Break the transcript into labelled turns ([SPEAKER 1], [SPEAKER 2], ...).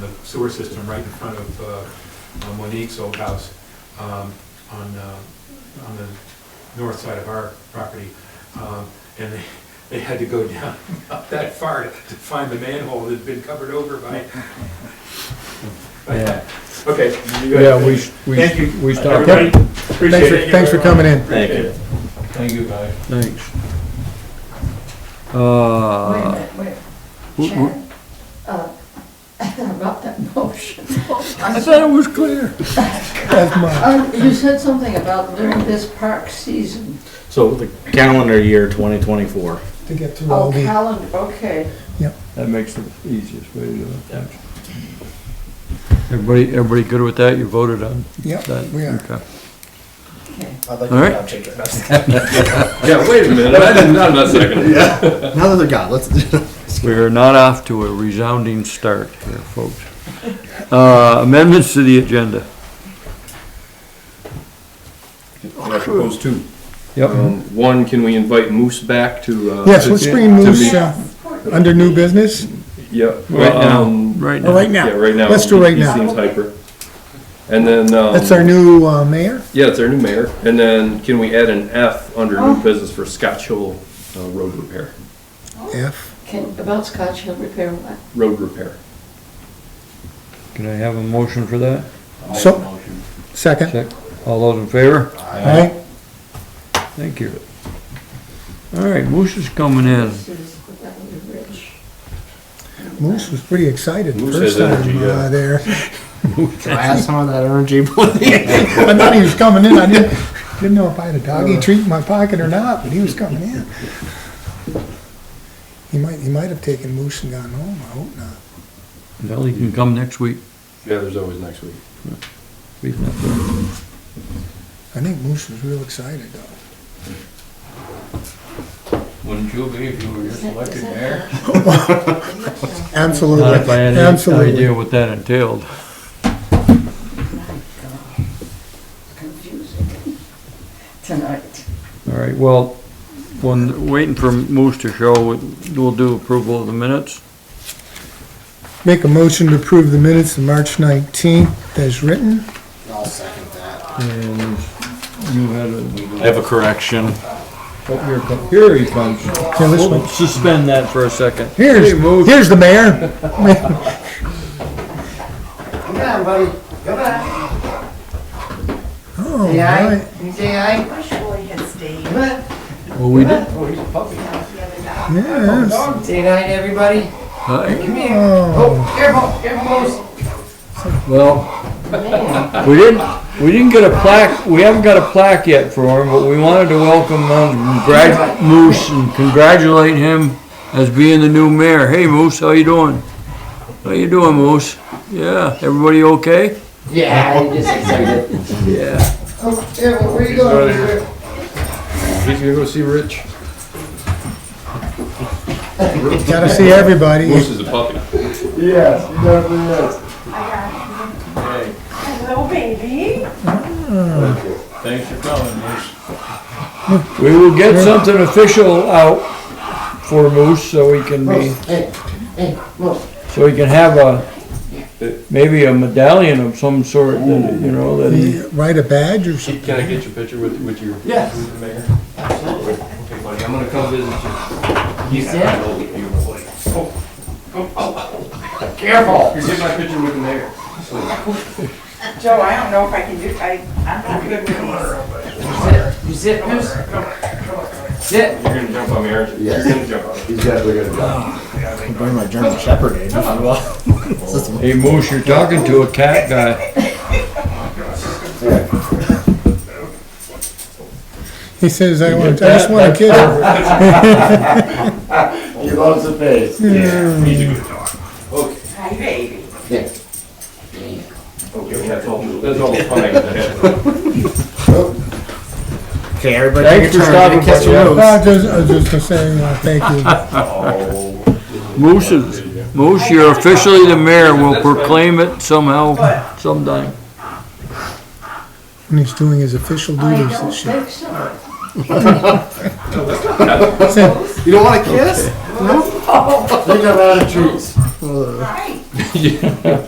[SPEAKER 1] the sewer system right in front of uh, uh, Monique's old house um, on, uh, on the north side of our property. Um, And they, they had to go down up that far to to find the manhole that'd been covered over by. by that. Okay. you guys
[SPEAKER 2] Yeah, we,
[SPEAKER 1] finish.
[SPEAKER 2] we,
[SPEAKER 1] Thank you.
[SPEAKER 2] we stopped.
[SPEAKER 1] Everybody,
[SPEAKER 2] Thanks
[SPEAKER 1] appreciate
[SPEAKER 2] for,
[SPEAKER 1] it.
[SPEAKER 2] thanks for coming in.
[SPEAKER 3] Thank you.
[SPEAKER 4] Thank you, guys.
[SPEAKER 2] Thanks.
[SPEAKER 5] Wait a
[SPEAKER 2] Uh,
[SPEAKER 5] minute, wait.
[SPEAKER 2] w- w-
[SPEAKER 5] Chad, uh, about that motion.
[SPEAKER 2] I thought it was clear. That's mine.
[SPEAKER 5] Uh, You said something about during this park season.
[SPEAKER 3] So the calendar year 2024.
[SPEAKER 2] To get through
[SPEAKER 5] Oh, calendar, okay.
[SPEAKER 4] That makes the easiest way to do it.
[SPEAKER 2] Everybody, everybody good with that? You voted on
[SPEAKER 6] Yep,
[SPEAKER 2] that?
[SPEAKER 6] we are.
[SPEAKER 2] Okay.
[SPEAKER 5] okay.
[SPEAKER 7] I'd like
[SPEAKER 2] All
[SPEAKER 7] to
[SPEAKER 2] right.
[SPEAKER 7] job check it.
[SPEAKER 3] Yeah, wait a minute. I didn't, I'm not seconding.
[SPEAKER 7] Now that they're gone, let's.
[SPEAKER 2] We're not off to a resounding start here, folks. Uh, amendments to the agenda.
[SPEAKER 8] I propose two.
[SPEAKER 2] Yep.
[SPEAKER 8] Um, One, can we invite Moose back to? uh,
[SPEAKER 6] Yes,
[SPEAKER 8] to-
[SPEAKER 6] let's bring
[SPEAKER 8] to
[SPEAKER 6] Moose
[SPEAKER 8] meet-
[SPEAKER 6] uh, under new business,
[SPEAKER 8] Yeah.
[SPEAKER 2] Right now,
[SPEAKER 8] um,
[SPEAKER 2] right
[SPEAKER 6] or right
[SPEAKER 2] now.
[SPEAKER 8] Yeah,
[SPEAKER 6] now.
[SPEAKER 8] right now.
[SPEAKER 6] Let's do right
[SPEAKER 8] He-
[SPEAKER 6] now.
[SPEAKER 8] He seems hyper. And then. um,
[SPEAKER 6] That's our new uh, mayor.
[SPEAKER 8] Yeah, it's our new mayor. And then can we add an F under
[SPEAKER 6] Oh.
[SPEAKER 8] new business for Scotch Hill uh, Road Repair?
[SPEAKER 6] F.
[SPEAKER 5] Can, about Scotch Hill Repair what?
[SPEAKER 8] Road Repair.
[SPEAKER 2] Can I have a motion for that?
[SPEAKER 6] So, second.
[SPEAKER 2] Check. All those in favor?
[SPEAKER 6] Aye.
[SPEAKER 2] Thank you. All right, Moose is coming in.
[SPEAKER 5] This is that would be rich.
[SPEAKER 6] Moose was pretty excited the
[SPEAKER 3] Moose
[SPEAKER 6] first
[SPEAKER 3] has
[SPEAKER 6] time
[SPEAKER 3] energy, yeah.
[SPEAKER 6] uh, there.
[SPEAKER 7] I have some of that energy.
[SPEAKER 6] I thought he was coming in. I didn't, didn't know if I had a doggy treat in my pocket or not, but he was coming in. He might, he might have taken Moose and gone home. I hope not.
[SPEAKER 2] Well, he can come next week.
[SPEAKER 8] Yeah, there's always next week.
[SPEAKER 2] He's not there.
[SPEAKER 6] I think Moose was real excited though.
[SPEAKER 4] Wouldn't you be if you were just elected mayor?
[SPEAKER 6] Absolutely.
[SPEAKER 2] Not if I had any
[SPEAKER 6] Absolutely.
[SPEAKER 2] idea what that entailed.
[SPEAKER 5] Confusing tonight.
[SPEAKER 2] All right, well, when, waiting for Moose to show, we'll do approval of the minutes.
[SPEAKER 6] Make a motion to approve the minutes of March 19th as written.
[SPEAKER 7] I'll second that.
[SPEAKER 2] And you had a,
[SPEAKER 3] I have a correction.
[SPEAKER 2] oh, here comes, here he comes.
[SPEAKER 6] Here, this
[SPEAKER 2] We'll
[SPEAKER 6] one.
[SPEAKER 2] Suspend that for a second.
[SPEAKER 6] Here's, here's the mayor.
[SPEAKER 7] Come on, buddy. Come on.
[SPEAKER 6] Oh,
[SPEAKER 7] Say
[SPEAKER 6] right.
[SPEAKER 7] aye. You say aye.
[SPEAKER 9] Wish Roy had stayed.
[SPEAKER 7] Come on.
[SPEAKER 2] Well, we did.
[SPEAKER 7] Oh, he's a puppy.
[SPEAKER 6] Yes.
[SPEAKER 7] Say aye to everybody.
[SPEAKER 2] Hi.
[SPEAKER 7] Come here.
[SPEAKER 6] Oh,
[SPEAKER 7] Oh, careful, careful, Moose.
[SPEAKER 2] Well,
[SPEAKER 5] Man,
[SPEAKER 2] we didn't, we didn't get a plaque, we haven't got a plaque yet for him, but we wanted to welcome um, Brad Moose and congratulate him as being the new mayor. Hey, Moose, how you doing? How you doing, Moose? Yeah, everybody okay?
[SPEAKER 7] Yeah, he just excited.
[SPEAKER 2] Yeah.
[SPEAKER 7] Oh, careful, where you going?
[SPEAKER 8] He's gonna go see Rich.
[SPEAKER 6] gotta see everybody.
[SPEAKER 8] Moose is a puppy.
[SPEAKER 7] Yes, he definitely is.
[SPEAKER 9] Hello, baby.
[SPEAKER 4] Thanks for coming, Moose.
[SPEAKER 2] We will get something official out for Moose so he can be,
[SPEAKER 7] Moose, hey, hey, Moose.
[SPEAKER 2] so he can have a, maybe a medallion of some sort, that, you know, that he,
[SPEAKER 6] You Write a badge or something.
[SPEAKER 8] Can I get your picture with, with your?
[SPEAKER 7] Yes.
[SPEAKER 8] with the mayor?
[SPEAKER 4] Okay, buddy, I'm gonna come visit you.
[SPEAKER 7] You said,
[SPEAKER 8] You
[SPEAKER 6] Oh,
[SPEAKER 7] careful.
[SPEAKER 8] get my picture with the mayor.
[SPEAKER 9] Joe, I don't know if I can do, I, I'm not good with these.
[SPEAKER 7] You sit, Moose. Sit.
[SPEAKER 8] You're gonna jump on me, aren't you?
[SPEAKER 3] Yes.
[SPEAKER 8] You're gonna jump on me.
[SPEAKER 3] He's definitely gonna die.
[SPEAKER 7] Bring my German Shepherd in if you will.
[SPEAKER 2] hey Moose, you're talking to a cat guy.
[SPEAKER 6] He says, I want, I just want a kid.
[SPEAKER 7] He loves the face.
[SPEAKER 9] Hi, baby.
[SPEAKER 8] Okay, that's all, that's all the fun I got ahead.
[SPEAKER 7] Okay, everybody.
[SPEAKER 2] Thanks for stopping by, yeah.
[SPEAKER 6] No, I just, I was just gonna say, uh, thank you.
[SPEAKER 2] Moose is, Moose, you're officially the mayor, we'll proclaim it somehow, sometime.
[SPEAKER 6] And he's doing his official
[SPEAKER 5] I
[SPEAKER 6] duties
[SPEAKER 5] don't
[SPEAKER 6] this year.
[SPEAKER 5] think so.
[SPEAKER 7] You don't want to kiss? No. Think I'm out of trees.
[SPEAKER 9] Hi.